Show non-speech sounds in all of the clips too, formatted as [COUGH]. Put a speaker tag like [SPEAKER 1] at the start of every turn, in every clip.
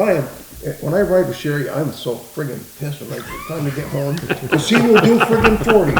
[SPEAKER 1] I am, when I ride with Sherry, I'm so friggin' pissed when I, it's time to get home, because she will do friggin' forty.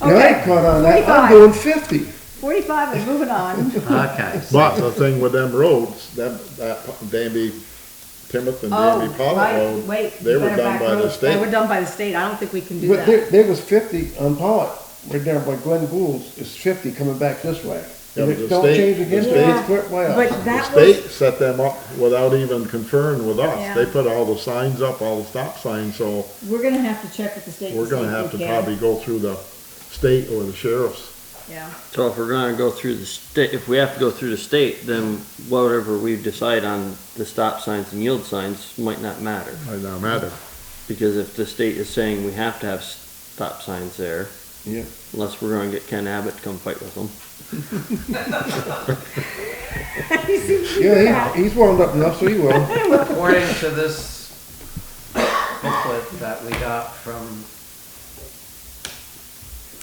[SPEAKER 1] And I
[SPEAKER 2] Okay,
[SPEAKER 1] caught on that, I'm
[SPEAKER 2] 45.
[SPEAKER 1] doing fifty.
[SPEAKER 2] forty-five and moving
[SPEAKER 3] [LAUGHS]
[SPEAKER 2] on.
[SPEAKER 4] Okay.
[SPEAKER 3] But the thing with them roads, them, that Danby, Timoth and Danby
[SPEAKER 2] Oh,
[SPEAKER 3] Pollock
[SPEAKER 2] right,
[SPEAKER 3] Road,
[SPEAKER 2] wait.
[SPEAKER 3] they were
[SPEAKER 2] better
[SPEAKER 3] done
[SPEAKER 2] back
[SPEAKER 3] by the
[SPEAKER 2] roads. They were
[SPEAKER 3] state.
[SPEAKER 2] done by the state, I don't think we can do
[SPEAKER 1] But
[SPEAKER 3] [LAUGHS]
[SPEAKER 2] that.
[SPEAKER 1] there, there was fifty on Pollock, right there by Glenn Gould's, is fifty coming back this way.
[SPEAKER 3] Yeah,
[SPEAKER 1] And
[SPEAKER 3] but
[SPEAKER 1] it
[SPEAKER 3] the
[SPEAKER 1] don't
[SPEAKER 3] state-
[SPEAKER 1] change
[SPEAKER 3] the
[SPEAKER 1] again,
[SPEAKER 3] state-
[SPEAKER 1] it's quit by
[SPEAKER 2] But
[SPEAKER 1] us.
[SPEAKER 3] The
[SPEAKER 2] that
[SPEAKER 3] state
[SPEAKER 2] was,
[SPEAKER 3] set them up without even conferring with
[SPEAKER 2] Yeah.
[SPEAKER 3] us. They put all the signs up, all the stop signs, so
[SPEAKER 2] we're gonna have to check with the state. and
[SPEAKER 3] we're
[SPEAKER 2] see
[SPEAKER 3] gonna
[SPEAKER 2] if
[SPEAKER 3] have to
[SPEAKER 2] we can.
[SPEAKER 3] probably go through the state or the sheriff's.
[SPEAKER 2] Yeah, [LAUGHS]
[SPEAKER 5] So if we're gonna go through the state, if we have to go through the state, then whatever we decide on the stop signs and yield signs might not matter.
[SPEAKER 3] Might not matter.
[SPEAKER 5] Because if the state is saying we have to have stop signs there,
[SPEAKER 1] Yeah.
[SPEAKER 5] unless we're gonna get Ken Abbott to come fight with them.
[SPEAKER 2] He seems to be
[SPEAKER 1] Yeah,
[SPEAKER 2] back.
[SPEAKER 1] he, he's warmed up enough, so he will.
[SPEAKER 4] According to this booklet that we got from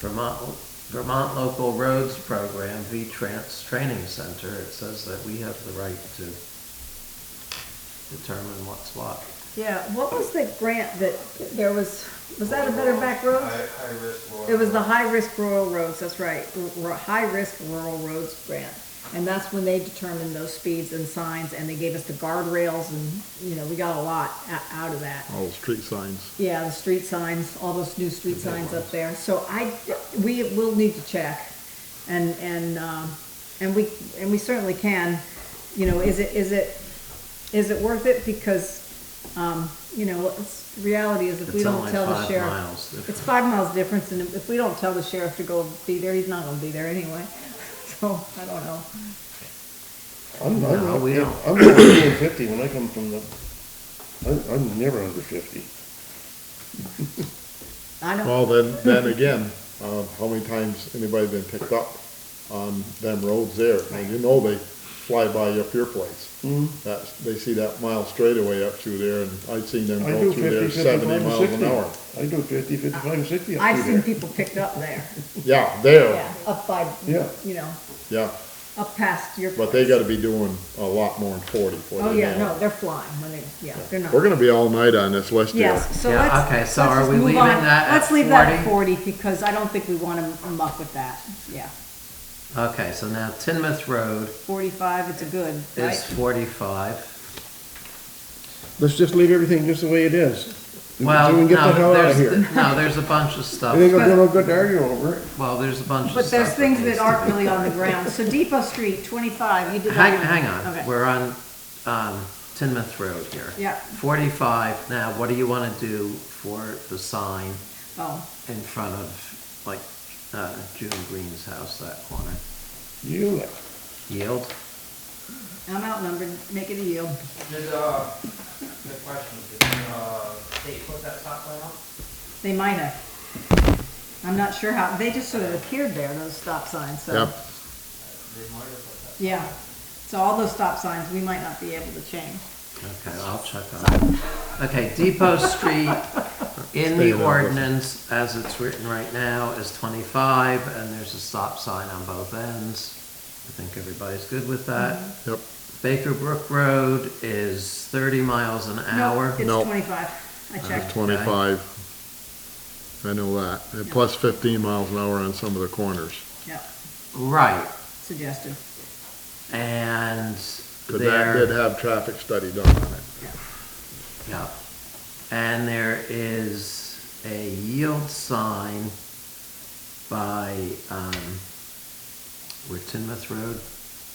[SPEAKER 4] Vermont, Vermont Local Roads Program, V-Trans Training Center, it says that we have the right to determine what's what.
[SPEAKER 2] Yeah, what was the grant that, there was, was that a Better Back Roads?
[SPEAKER 6] High, high risk road.
[SPEAKER 2] It was the High Risk Rural Roads, that's right, r- r- High Risk Rural Roads Grant. And that's when they determined those speeds and signs, and they gave us the guardrails, and, you know, we got a lot o- out of that.
[SPEAKER 3] All the street signs.
[SPEAKER 2] Yeah, the street signs, all those new street signs up there, so I, we will need to check. And, and, um, and we, and we certainly can, you know, is it, is it, is it worth it? Because, um, you know, it's, reality is if we
[SPEAKER 4] It's
[SPEAKER 2] don't
[SPEAKER 4] only
[SPEAKER 2] tell the
[SPEAKER 4] five
[SPEAKER 2] sheriff.
[SPEAKER 4] miles.
[SPEAKER 2] It's five miles difference, and if we don't tell the sheriff to go be there, he's not gonna be there anyway, [LAUGHS] so, I don't know.
[SPEAKER 1] I'm, I'm,
[SPEAKER 4] No, we
[SPEAKER 1] I'm,
[SPEAKER 4] don't.
[SPEAKER 1] I'm never doing fifty when I come from the, I'm, I'm never under fifty.
[SPEAKER 2] I don't,
[SPEAKER 3] Well, then, then again, uh, how many times anybody been picked up on them roads there? And you know they fly by up your place.
[SPEAKER 1] Mm-hmm.
[SPEAKER 3] That's, they see that mile straightaway up through there and I've seen them
[SPEAKER 1] I
[SPEAKER 3] go
[SPEAKER 1] do
[SPEAKER 3] through
[SPEAKER 1] 50,
[SPEAKER 3] there
[SPEAKER 1] 55,
[SPEAKER 3] seventy
[SPEAKER 1] and
[SPEAKER 3] miles an
[SPEAKER 1] 60.
[SPEAKER 3] hour.
[SPEAKER 1] I do 50, 55, and 60 up
[SPEAKER 2] I've
[SPEAKER 1] through
[SPEAKER 2] seen
[SPEAKER 1] there.
[SPEAKER 2] people picked up there,
[SPEAKER 3] Yeah, there,
[SPEAKER 2] yeah, up by,
[SPEAKER 1] Yeah.
[SPEAKER 2] you know,
[SPEAKER 3] yeah,
[SPEAKER 2] up past your.
[SPEAKER 3] but they
[SPEAKER 2] place.
[SPEAKER 3] gotta be doing a lot more than forty. for
[SPEAKER 2] Oh,
[SPEAKER 3] the
[SPEAKER 2] yeah,
[SPEAKER 3] amount.
[SPEAKER 2] no, they're flying when they, yeah, they're not.
[SPEAKER 3] We're gonna be all night on this West deal.
[SPEAKER 2] Yes, so
[SPEAKER 4] Yeah,
[SPEAKER 2] let's.
[SPEAKER 4] okay, so
[SPEAKER 2] let's
[SPEAKER 4] are
[SPEAKER 2] just
[SPEAKER 4] we
[SPEAKER 2] move
[SPEAKER 4] leaving
[SPEAKER 2] on.
[SPEAKER 4] that at
[SPEAKER 2] Let's leave that at forty, because I don't think we wanna muck with that, yeah.
[SPEAKER 4] Okay, so now Tinmouth Road
[SPEAKER 2] Forty-five, it's a good,
[SPEAKER 4] is
[SPEAKER 2] right?
[SPEAKER 4] forty-five.
[SPEAKER 1] Let's just leave everything just the way it is. So
[SPEAKER 4] Well,
[SPEAKER 1] we can get the
[SPEAKER 4] no,
[SPEAKER 1] hell out of
[SPEAKER 4] there's,
[SPEAKER 1] here.
[SPEAKER 4] no, there's a bunch of
[SPEAKER 1] It ain't
[SPEAKER 4] stuff,
[SPEAKER 1] gonna do no good to argue over it.
[SPEAKER 4] well, there's a bunch of stuff.
[SPEAKER 2] But there's things
[SPEAKER 4] needs
[SPEAKER 2] that
[SPEAKER 4] to
[SPEAKER 2] aren't
[SPEAKER 4] be
[SPEAKER 2] really on the ground, so Depot Street, twenty-five, you did that.
[SPEAKER 4] Hang,
[SPEAKER 2] one.
[SPEAKER 4] hang on,
[SPEAKER 2] Okay.
[SPEAKER 4] we're on, um, Tinmouth Road here.
[SPEAKER 2] Yeah.
[SPEAKER 4] Forty-five, now, what do you wanna do for the sign
[SPEAKER 2] Oh,
[SPEAKER 4] in front of, like, uh, June Green's house, that corner?
[SPEAKER 1] You, like,
[SPEAKER 4] Yield?
[SPEAKER 2] I'm outnumbered, make it a yield.
[SPEAKER 6] Did, uh, good question, did, uh, they put that stop sign up?
[SPEAKER 2] They might have. I'm not sure how, they just sort of appeared there, those stop signs, so.
[SPEAKER 3] Yep.
[SPEAKER 6] They might have put that.
[SPEAKER 2] Yeah, so all those stop signs, we might not be able to change.
[SPEAKER 4] Okay, I'll check on it. Okay, Depot Street, in the ordinance, as it's written right now, is twenty-five, and there's a stop sign on both ends. I think everybody's good with that.
[SPEAKER 3] Yep,
[SPEAKER 4] Baker Brook Road is thirty miles an
[SPEAKER 2] No,
[SPEAKER 4] hour.
[SPEAKER 2] It's
[SPEAKER 3] No.
[SPEAKER 2] twenty-five, I
[SPEAKER 3] it's
[SPEAKER 2] checked.
[SPEAKER 3] twenty-five. I know that, and plus fifteen miles an hour on some of the corners.
[SPEAKER 2] Yeah,
[SPEAKER 4] Right,
[SPEAKER 2] suggested.
[SPEAKER 4] and
[SPEAKER 3] 'Cause that
[SPEAKER 4] there,
[SPEAKER 3] did have traffic study done on it.
[SPEAKER 4] yeah. And there is a yield sign by, um, where Tinmouth Road?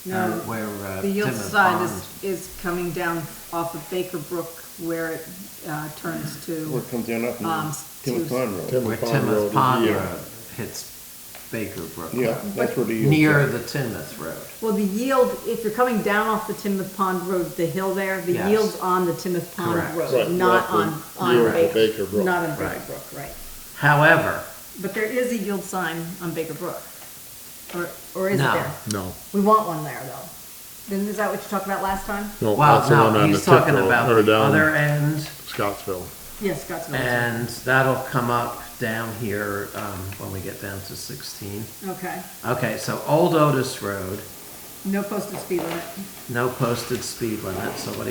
[SPEAKER 2] No,
[SPEAKER 4] uh, Where, uh,
[SPEAKER 2] The yield
[SPEAKER 4] Tinmouth
[SPEAKER 2] sign
[SPEAKER 4] Pond.
[SPEAKER 2] is, is coming down off of Baker Brook where it, uh, turns
[SPEAKER 1] where
[SPEAKER 2] to,
[SPEAKER 1] it comes down up
[SPEAKER 2] Um,
[SPEAKER 1] and Tim
[SPEAKER 2] to-
[SPEAKER 1] Conroe.
[SPEAKER 3] Tim-
[SPEAKER 4] Where
[SPEAKER 3] Pond Road
[SPEAKER 4] Tinmouth
[SPEAKER 3] is
[SPEAKER 4] Pond
[SPEAKER 3] yield.
[SPEAKER 4] Road hits Baker Brook.
[SPEAKER 1] Yeah, that's where the. E yield
[SPEAKER 4] Near
[SPEAKER 1] is.
[SPEAKER 4] the Tinmouth Road.
[SPEAKER 2] well, the yield, if you're coming down off the Timoth Pond Road, the hill there, the
[SPEAKER 4] Yes.
[SPEAKER 2] yield's on the Timoth Pond
[SPEAKER 4] Correct.
[SPEAKER 3] Right,
[SPEAKER 2] Road, not
[SPEAKER 3] not
[SPEAKER 2] on,
[SPEAKER 3] the
[SPEAKER 2] on
[SPEAKER 3] yield to
[SPEAKER 2] Baker,
[SPEAKER 3] Baker Brook.
[SPEAKER 2] not on Baker
[SPEAKER 4] Right.
[SPEAKER 2] Brook, right.
[SPEAKER 4] However,
[SPEAKER 2] But there is a yield sign on Baker Brook, or, or is it
[SPEAKER 4] No.
[SPEAKER 2] there?
[SPEAKER 3] No,
[SPEAKER 2] We want one there, though. Then is that what you talked about last time?
[SPEAKER 3] no, that's the
[SPEAKER 4] well,
[SPEAKER 3] one
[SPEAKER 4] no,
[SPEAKER 3] on the
[SPEAKER 4] he's
[SPEAKER 3] tip
[SPEAKER 4] talking
[SPEAKER 3] road,
[SPEAKER 4] about
[SPEAKER 3] or
[SPEAKER 4] the
[SPEAKER 3] down
[SPEAKER 4] other end.
[SPEAKER 3] Scottsville.
[SPEAKER 2] Yes, Scottsville.
[SPEAKER 4] And that'll come up down here um, when we get down to 16.
[SPEAKER 2] Okay,
[SPEAKER 4] Okay, so Old Otis Road
[SPEAKER 2] no posted speed limit.
[SPEAKER 4] No posted speed limit, so what do you